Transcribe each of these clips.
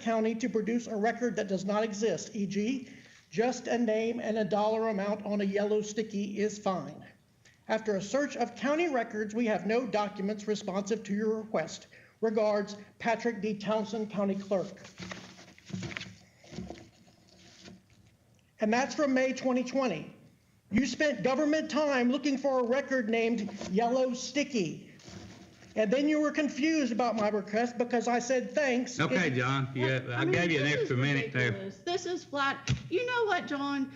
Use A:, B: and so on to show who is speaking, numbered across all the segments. A: county to produce a record that does not exist, e.g., just a name and a dollar amount on a yellow sticky is fine. After a search of county records, we have no documents responsive to your request. Regards, Patrick D. Townsend, County Clerk. And that's from May 2020. You spent government time looking for a record named Yellow Sticky. And then you were confused about my request because I said thanks.
B: Okay, John, yeah, I
C: mean,
B: gave you an
C: this is
B: extra minute there.
C: ridiculous. This is flat. You know what, John?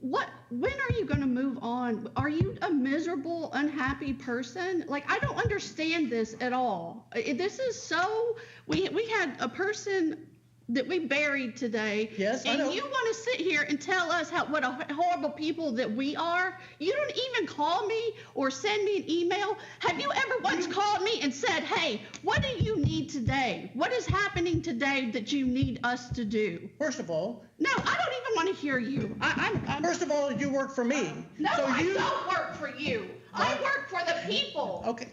C: What? When are you going to move on? Are you a miserable, unhappy person? Like I don't understand this at all. I- This is so. We we had a person that we buried today.
A: Yes, I
C: and
A: know.
C: you want to sit here and tell us how what a horrible people that we are? You don't even call me or send me an email. Have you ever once called me and said, "Hey, what do you need today? What is happening today that you need us to do?"
A: First of all,
C: No, I don't even want to hear you. I, I'm, I'm
A: first of all, you work for me.
C: no,
A: So
C: I
A: you-
C: don't work for you. I work for the people.
A: Okay,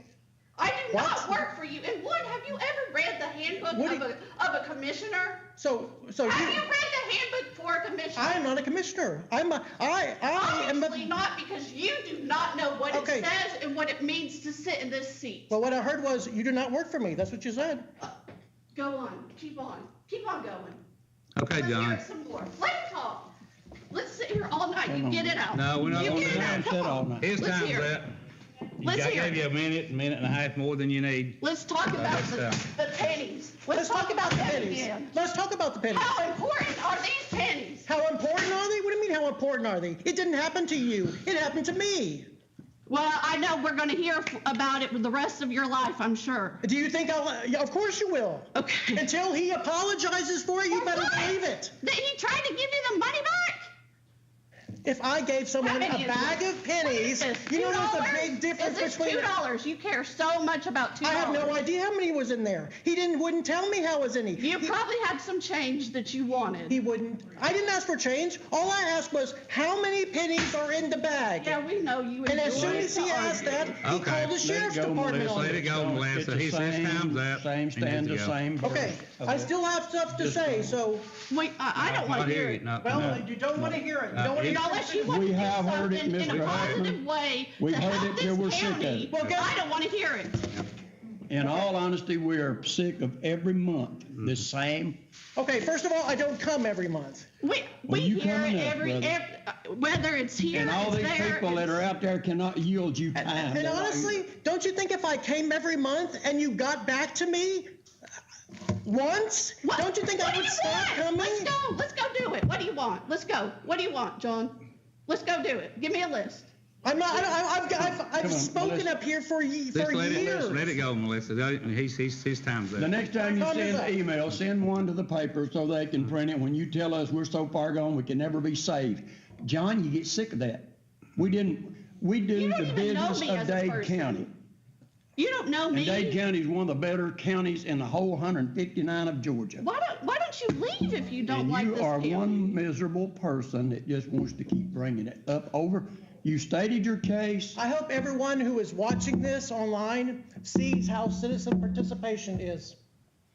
C: I do
A: What?
C: not work for you. And Wood, have you ever read the handbook
A: What
C: of
A: do
C: a,
A: you-
C: of a commissioner?
A: so, so
C: Have you
A: you,
C: read the handbook for a commissioner?
A: I am not a commissioner. I'm a, I, I am
C: Obviously
A: a,
C: not, because you do not know what it
A: Okay.
C: says and what it means to sit in this seat.
A: well, what I heard was, you do not work for me. That's what you said.
C: Go on, keep on, keep on going.
B: Okay,
C: Let's hear
B: John.
C: it some more. Let's talk. Let's sit here all night. You get it out.
B: No, we're not
C: You
B: gonna
C: get
B: do
C: it
B: that.
C: out. Come
D: Sit all
C: on.
D: night.
B: It's
C: Let's
B: time
C: hear
B: for
C: it.
B: that. I
C: Let's hear
B: gave
C: it.
B: you a minute, minute and a half more than you need.
C: Let's talk about
B: that's
C: the,
B: fair.
C: the pennies. Let's talk about
A: the
C: that
A: pennies.
C: again.
A: Let's talk about the pennies.
C: How important are these pennies?
A: How important are they? What do you mean, how important are they? It didn't happen to you. It happened to me.
C: Well, I know we're going to hear f- about it the rest of your life, I'm sure.
A: Do you think I'll, yeah, of course you will.
C: Okay.
A: Until he apologizes for it, you
C: For
A: better
C: what?
A: believe it.
C: That he tried to give you the money back?
A: If I gave someone a
C: How many is
A: bag
C: it?
A: of pennies,
C: This
A: you know there's a
C: $2?
A: big difference
C: Is this
A: between.
C: two dollars? You care so much about two
A: I
C: dollars.
A: have no idea how many was in there. He didn't, wouldn't tell me how was any.
C: You
A: He-
C: probably had some change that you wanted.
A: He wouldn't. I didn't ask for change. All I asked was, how many pennies are in the bag?
C: yeah, we know you.
A: And as
C: enjoy
A: soon as he
C: to
A: asked that,
C: argue.
A: he
B: Okay.
A: called the
B: Let it
A: sheriff's
D: go,
A: department
D: Melissa.
A: on
B: Let it
A: it.
B: go,
D: It's
B: Melissa.
D: the
B: He says
D: same-
B: time's up.
D: Same
B: He needs
D: stand,
B: to
D: the
B: go.
D: same. verb
A: Okay,
D: of
A: I
D: it.
A: still have stuff to
D: Just
A: say,
D: one.
A: so,
C: Wait, I, I don't want
B: Not
C: to hear
B: hear
C: it.
B: it, not,
A: well,
B: Uh, no.
A: you don't want to hear it. You
B: No.
A: don't want to
B: It-
A: hear
C: Now, Unless you want
D: We
C: to do
D: have heard it,
C: something in a
D: Mr. Hoffman.
C: positive way
D: We've
C: to
D: heard
C: help
D: it till we're
C: this
D: sick of
C: county,
D: it.
A: Well, guess-
C: I don't want to hear it.
D: In all honesty, we are sick of every month, the same.
A: Okay, first of all, I don't come every month.
C: We, we
D: Well, you
C: hear
D: coming
C: it
D: up,
C: every,
D: brother.
C: ev- uh whether it's here,
D: And all
C: it's
D: these
C: there,
D: people that
C: it's-
D: are out there cannot yield you time.
A: And
D: They're like-
A: honestly, don't you think if I came every month and you got back to me once,
C: What-
A: don't you think
C: what
A: I
C: do
A: would
C: you
A: stop
C: want?
A: coming?
C: Let's go. Let's go do it. What do you want? Let's go. What do you want, John? Let's go do it. Give me a list.
A: I'm not, I don't- I- I've, I've, I've
D: Come on,
A: spoken
D: Melissa.
A: up here for ye, for
B: Just let
A: years.
B: it, let it go, Melissa. Don't- He's, he's, his time's
D: The
B: up.
D: next time you
A: Time is
D: send
A: up.
D: an email, send one to the paper so they can print it. When you tell us we're so far gone, we can never be saved. John, you get sick of that. We didn't, we do
C: You don't
D: the
C: even know
D: business
C: me
D: of
C: as a
D: Dade
C: person.
D: County.
C: You don't know
D: And
C: me.
D: Dade County is one of the better counties in the whole hundred and fifty-nine of Georgia.
C: why don't Why don't you leave if you don't
D: And
C: like
D: you
C: this
D: are
C: county?
D: one miserable person that just wants to keep bringing it up over. You stated your case.
A: I hope everyone who is watching this online sees how citizen participation is.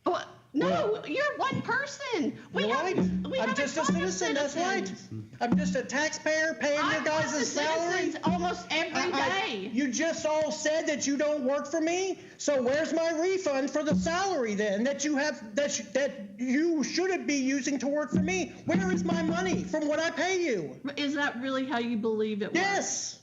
C: Well, no,
D: Well-
C: you're one person. We
A: You're
C: have,
A: right.
C: we
A: I'm
C: have
A: just
C: a
A: a
C: ton of
A: citizen, that's right.
C: citizens.
A: I'm just a taxpayer paying
C: I
A: your
C: talk to
A: guys' salary.
C: citizens almost
A: I-
C: every
A: I-
C: day.
A: You just all said that you don't work for me, so where's my refund for the salary then that you have, that, you- that you shouldn't be using to work for me? Where is my money from what I pay you?
C: Is that really how you believe it works?
A: Yes,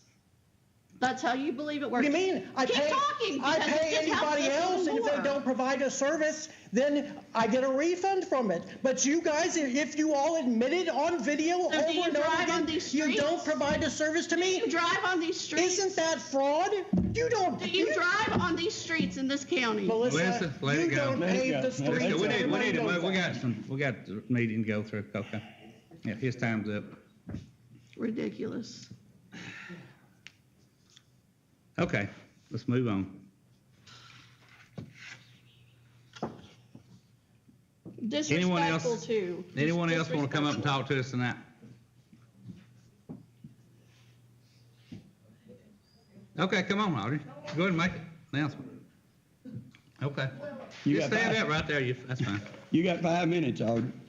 C: That's how you believe it
A: what
C: works.
A: do you mean? I
C: Keep
A: pay-
C: talking.
A: I
C: because it
A: pay
C: just helps
A: anybody
C: us
A: else, and if they
C: more.
A: don't provide a service, then I get a refund from it. But you guys, if you all admitted on video over
C: do you
A: and over
C: drive on
A: again,
C: these
A: you don't
C: streets?
A: provide a service to
C: you
A: me,
C: drive on these streets.
A: isn't that fraud? You don't.
C: Do you drive on these streets in this county?
A: Melissa,
B: Melissa, let
A: you
B: it go.
A: don't
D: Let it
A: pave
D: go.
A: the
D: Let it
A: streets.
D: go.
B: We need, we
A: Everybody
B: need,
A: knows
B: we
A: that.
B: got some, we got the meeting to go through, okay. Yeah, his time's up.
C: Ridiculous.
B: Okay, let's move on. Anyone else-
C: Disrespectful too.
B: Anyone else want to come up and talk to us tonight? Okay, come on, Audrey. Go ahead and make it. Announcement. Okay.
D: You
B: Just
D: got
B: stand
D: five-
B: up right there. You, that's fine.
D: You got five minutes, Audrey.